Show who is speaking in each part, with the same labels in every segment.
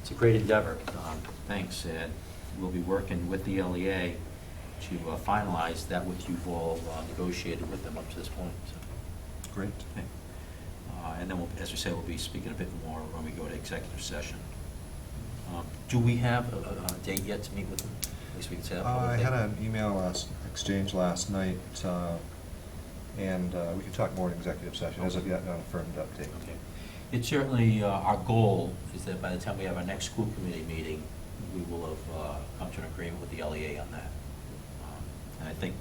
Speaker 1: It's a great endeavor. Um, Thanks, and we'll be working with the LEA to uh, finalize that which you've all uh, negotiated with them up to this point, so.
Speaker 2: Great.
Speaker 1: okay. Uh, And then, we'll- as we say, we'll be speaking a bit more when we go to executive session. Um, Do we have a- a a date yet to meet with them? At least we can say that
Speaker 2: Uh, I
Speaker 1: publicly.
Speaker 2: had an email last, exchange last night, uh, and uh, we could talk more in executive session, as of yet not a firm update.
Speaker 1: Okay. It's certainly, uh, our goal is that by the time we have our next school committee meeting, we will have uh, come to an agreement with the LEA on that. Um, And I think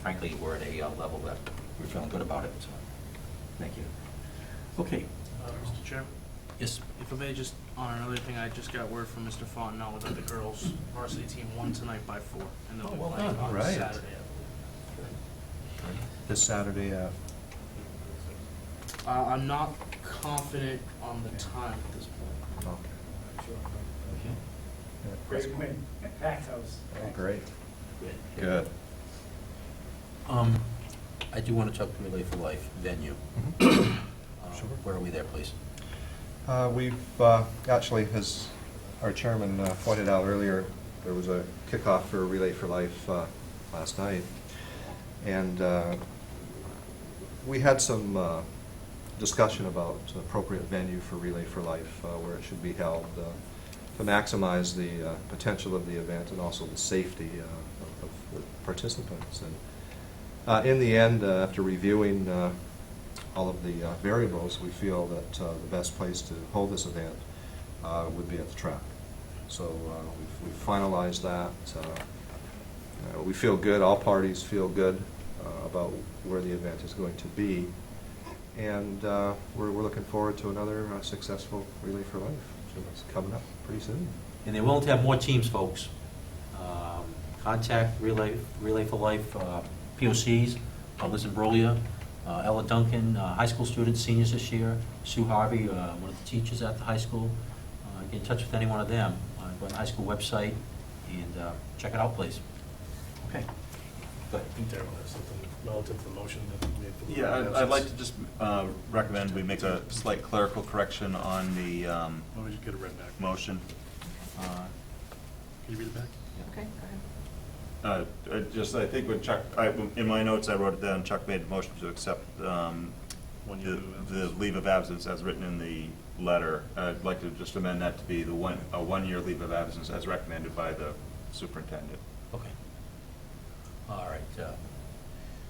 Speaker 1: frankly, we're at a uh, level that we're feeling good about it, so, thank you. Okay,
Speaker 3: Uh, Mr. Chairman,
Speaker 1: yes,
Speaker 3: if I may just, on another thing, I just got word from Mr. Fontenot that the girls varsity team won tonight by four, and they'll
Speaker 1: Oh,
Speaker 3: be
Speaker 1: well
Speaker 3: playing
Speaker 1: done.
Speaker 3: on
Speaker 2: Right.
Speaker 3: Saturday. I believe.
Speaker 2: This Saturday, uh,
Speaker 3: Uh, I'm not confident on the time at this point.
Speaker 2: okay. Yeah.
Speaker 4: Great win, packed house.
Speaker 2: Oh, Great.
Speaker 3: Good.
Speaker 2: Good.
Speaker 1: Um, I do want to talk to Relay for Life venue. Uh,
Speaker 2: Mm-hmm. Sure.
Speaker 1: Where are we there, please?
Speaker 2: Uh, We've, uh, actually, as our chairman uh, pointed out earlier, there was a kickoff for Relay for Life uh, last night. And uh, we had some uh, discussion about appropriate venue for Relay for Life, uh, where it should be held, uh, to maximize the uh, potential of the event and also the safety uh, of the participants. And uh, In the end, uh, after reviewing uh, all of the uh, variables, we feel that uh, the best place to hold this event uh, would be at the track. So uh, we've- we've finalized that. Uh, uh, We feel good, all parties feel good uh, about where the event is going to be. And uh, we're we're looking forward to another uh, successful Relay for Life. So It's coming up pretty soon.
Speaker 1: And they're willing to have more teams, folks. Um, Contact Relay, Relay for Life, uh, POCs, uh, Liz Imbruglia, uh, Ella Duncan, uh, high school students, seniors this year, Sue Harvey, uh, one of the teachers at the high school. Uh, Get in touch with any one of them, uh, go on the high school website and uh, check it out, please. Okay. Good.
Speaker 5: I think Darrell has something relative to the motion that we made. for the-
Speaker 6: Yeah, I'd- I'd like to just uh, recommend we make a slight clerical correction on the um,
Speaker 5: Why don't we just get it right back?
Speaker 6: motion. Uh,
Speaker 5: Can you read it back?
Speaker 7: Okay, go
Speaker 6: uh, I Just, I think when Chuck, I- in my notes, I wrote it down, Chuck made a motion to accept um,
Speaker 5: One year
Speaker 6: the
Speaker 5: leave of
Speaker 6: the
Speaker 5: absence.
Speaker 6: leave of absence as written in the letter. I'd like to just amend that to be the one, a one-year leave of absence as recommended by the superintendent.
Speaker 1: Okay. All right. uh,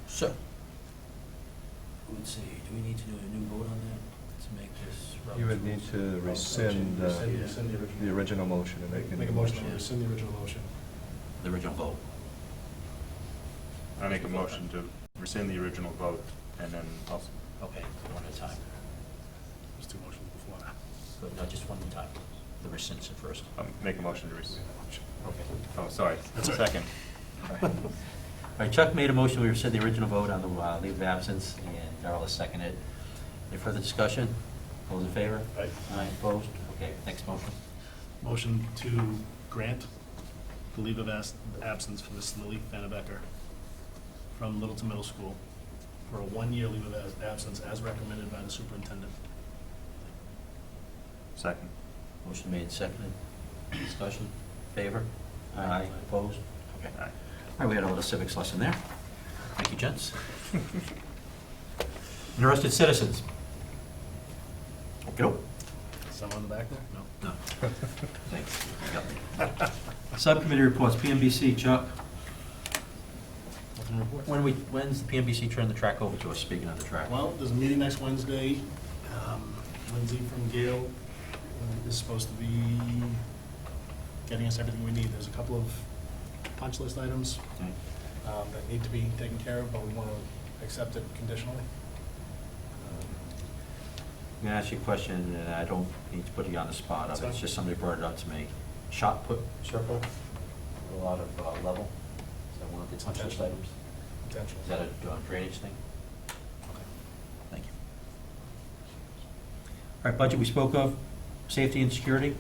Speaker 1: So, let's see, do we need to do a new vote on that to make this?
Speaker 2: You would need to rescind uh,
Speaker 5: Rescind- rescind the original.
Speaker 2: the original motion and make a new
Speaker 5: Make a motion
Speaker 2: motion.
Speaker 5: to rescind the original motion.
Speaker 1: The original vote.
Speaker 6: I make a motion to rescind the original vote and then also,
Speaker 1: Okay, one at a time.
Speaker 5: There's two motions before that.
Speaker 1: But No, just one at a time. The rescission first.
Speaker 6: um, make a motion to rescind.
Speaker 1: Okay.
Speaker 6: Oh, sorry,
Speaker 5: That's all right.
Speaker 6: second.
Speaker 1: All right, Chuck made a motion, we rescind the original vote on the uh, leave of absence, and Darrell has seconded. Any further discussion? All Those in favor?
Speaker 5: Aye.
Speaker 1: Aye, opposed? Okay, next motion.
Speaker 5: Motion to grant the leave of as- absence for Miss Lily Fennebecker from Littleton Middle School for a one-year leave of as- absence as recommended by the superintendent.
Speaker 6: Second.
Speaker 1: Motion made, seconded. Discussion? Favor? Aye, opposed? Okay. All
Speaker 6: Aye.
Speaker 1: right, we had a little civics lesson there. Thank you, gents. Interested citizens? Okey-doke.
Speaker 5: Someone in the back there? No.
Speaker 1: No. Thanks. Yep. Subcommittee reports, PMBC, Chuck.
Speaker 5: Nothing to report?
Speaker 1: When we, when's the PMBC turn the track over to us, speaking of the track?
Speaker 5: Well, there's a meeting next Wednesday. Um, Lindsay from Gale uh, is supposed to be getting us everything we need. There's a couple of punch list items
Speaker 1: Okay. Mm-hmm.
Speaker 5: um, that need to be taken care of, but we want to accept it conditionally. Um,
Speaker 1: I'm gonna ask you a question, and I don't need to put you on the spot, of it. it's
Speaker 5: Sorry.
Speaker 1: just somebody brought it up to me. Shot put circle, a lot of uh, level, is that one of the punch list items?
Speaker 5: Potential.
Speaker 1: Is that a uh, drainage thing? Okay, thank you. All right, budget we spoke of, safety and security?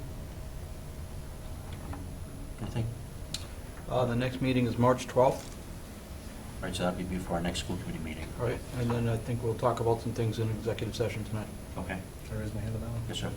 Speaker 1: Anything?
Speaker 8: Uh, The next meeting is March 12th.
Speaker 1: All right, so that'll be before our next school committee meeting.
Speaker 8: Right. And then I think we'll talk about some things in executive session tonight.
Speaker 1: Okay,
Speaker 5: Can I raise my hand on that one?
Speaker 1: yes, sir.